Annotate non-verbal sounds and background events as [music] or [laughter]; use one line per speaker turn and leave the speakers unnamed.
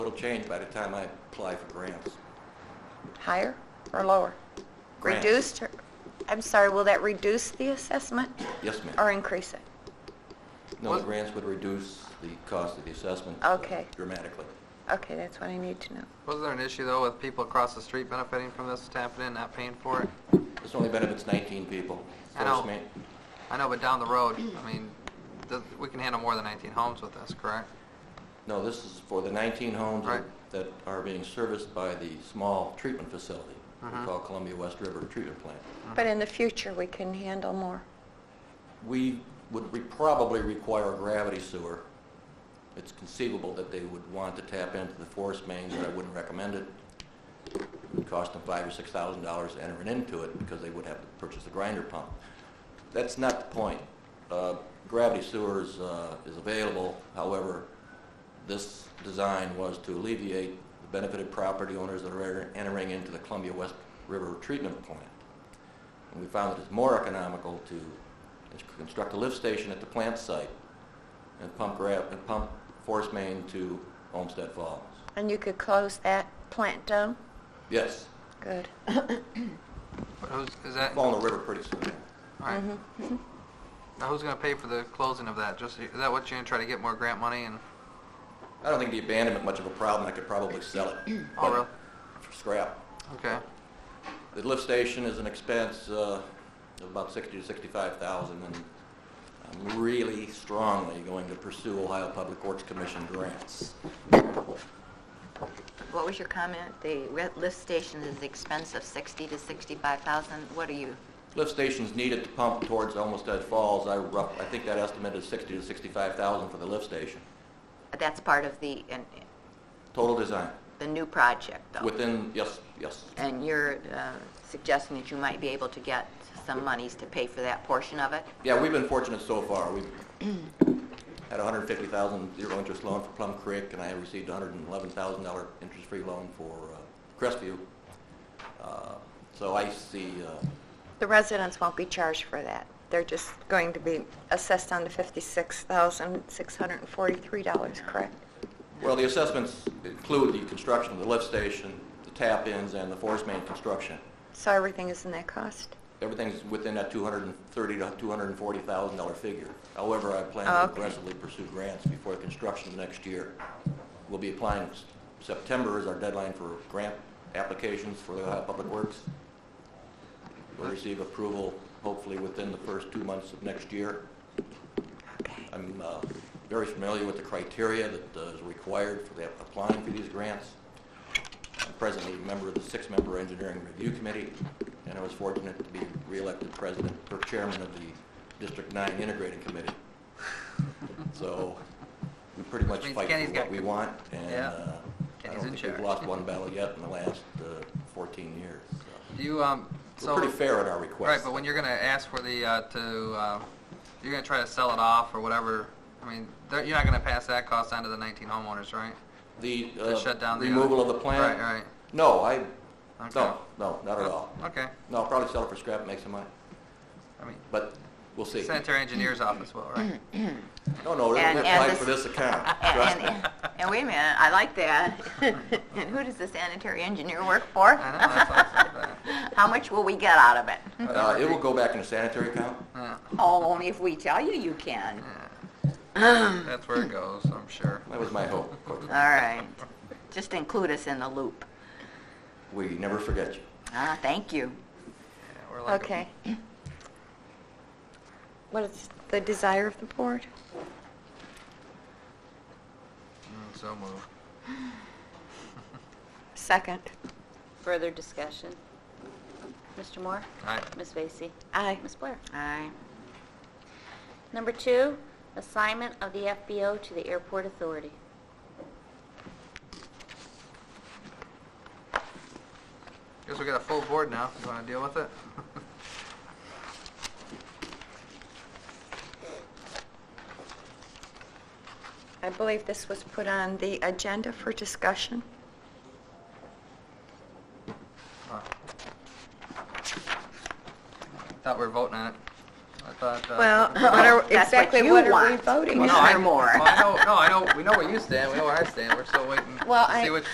it'll change by the time I apply for grants.
Higher or lower?
Grants.
Reduced, or- I'm sorry, will that reduce the assessment
Yes, ma'am.
or increase it?
No, the grants would reduce the cost of the assessment uh,
Okay.
dramatically.
Okay, that's what I need to know.
Wasn't there an issue though with people across the street benefiting from this, tapping in, not paying for it?
This only benefits 19 people.
I
So it's
know.
ma-
I know, but down the road, I mean, th- we can handle more than 19 homes with this, correct?
No, this is for the 19 homes
Right.
that are being serviced by the small treatment facility
Mm-hmm.
we call Columbia West River Treatment Plant.
But in the future, we can handle more.
We would re- probably require a gravity sewer. It's conceivable that they would want to tap into the forest main, but I wouldn't recommend it. It would cost them five or six thousand dollars to enter into it because they would have to purchase a grinder pump. That's not the point. Uh, Gravity sewers uh, is available, however, this design was to alleviate the benefited property owners that are entering into the Columbia West River Treatment Plant. And we found that it's more economical to ins- construct a lift station at the plant site and pump gra, and pump forest main to Olmsted Falls.
And you could close that plant down?
Yes,
Good.
But who's, is that, all
fall in the river pretty soon.
right. Now who's gonna pay for the closing of that? Just, is that what you're gonna try to get more grant money and,
I don't think the abandonment much of a problem, I could probably sell it.
oh, really?
but For scrap.
Okay,
The lift station is an expense uh, of about sixty to sixty-five thousand, and I'm really strongly going to pursue Ohio Public Works Commission grants.
What was your comment? The re- lift station is the expense of 60 to 65,000. What are you?
Lift stations needed to pump towards Olmsted Falls, I rough, I think that estimate is sixty to sixty-five thousand for the lift station.
That's part of the in-
Total design,
the new project, though.
within, yes, yes,
and you're uh, suggesting that you might be able to get some monies to pay for that portion of it.
Yeah, we've been fortunate so far. We've had $150,000 zero-interest loan for Plum Creek, and I received $111,000 interest-free loan for uh, Crestview. Uh, So I see, uh,
The residents won't be charged for that. They're just going to be assessed on the $56,643, correct?
well, the assessments include the construction of the lift station, the tap-ins, and the forest main construction.
So everything is in that cost?
Everything's within that $230,000 to $240,000 figure. However, I plan
Oh,
to
okay.
aggressively pursue grants before the construction next year. We'll be applying, September is our deadline for grant applications for the Ohio Public Works. We'll receive approval hopefully within the first two months of next year.
Okay.
I'm uh, very familiar with the criteria that uh, is required for the- applying for these grants. I'm presently a member of the six-member Engineering Review Committee, and I was fortunate to be reelected president or chairman of the District 9 Integrating Committee. So we pretty much
means
fight
Kenny's
for what
got-
we want, and
Yeah.
uh, I
Kenny's
don't
in
think we've
charge.
lost one battle yet in the last uh, 14 years. so.
do you, um, so.
We're pretty fair at our
Right,
requests.
but when you're gonna ask for the, uh, to, uh, you're gonna try to sell it off or whatever, I mean, they're- you're not gonna pass that cost on to the 19 homeowners, right?
The
to shut
uh,
down the
removal of
other-
the plant?
Right, right.
No, I,
Okay.
no, no, not at all.
Okay,
No, I'll probably sell it for scrap, make some money,
I mean,
but we'll see.
sanitary engineer's office will, right?
No, no, it'll
And- and
apply
this-
for this account, trust
[laughs] And,
me.
and, and wait a minute, I like that. [laughs] and who does the sanitary engineer work for?
I know, that's why I said that.
[laughs] How much will we get out of it?
[laughs]
[laughs]
Uh, It will go back in the sanitary account.
Yeah,
Oh, only if we tell you you can.
That's where it goes, I'm sure.
That was my hope. of course.
All right. Just include us in the loop.
We never forget you.
Ah, thank you.
Yeah, we're like a-
Okay. What is the desire of the board?
Mm, So moved.
Second.
Further discussion? Mr. Moore?
Aye.
Ms. Vacy?
Aye.
Ms. Blair?
Aye.
Number two, assignment of the FBO to the Airport Authority.
Guess we got a full board now, you wanna deal with it? [laughs]
I believe this was put on the agenda for discussion.
Huh. Thought we were voting on it. I thought, uh.
Well, what are,
That's what
exactly
you
what are we
want.
voting
Well,
on?
no, I-
more.
[laughs] well, I know, no, I know, we know where you stand, we know where I stand, we're still waiting.
Well,
See
I,
what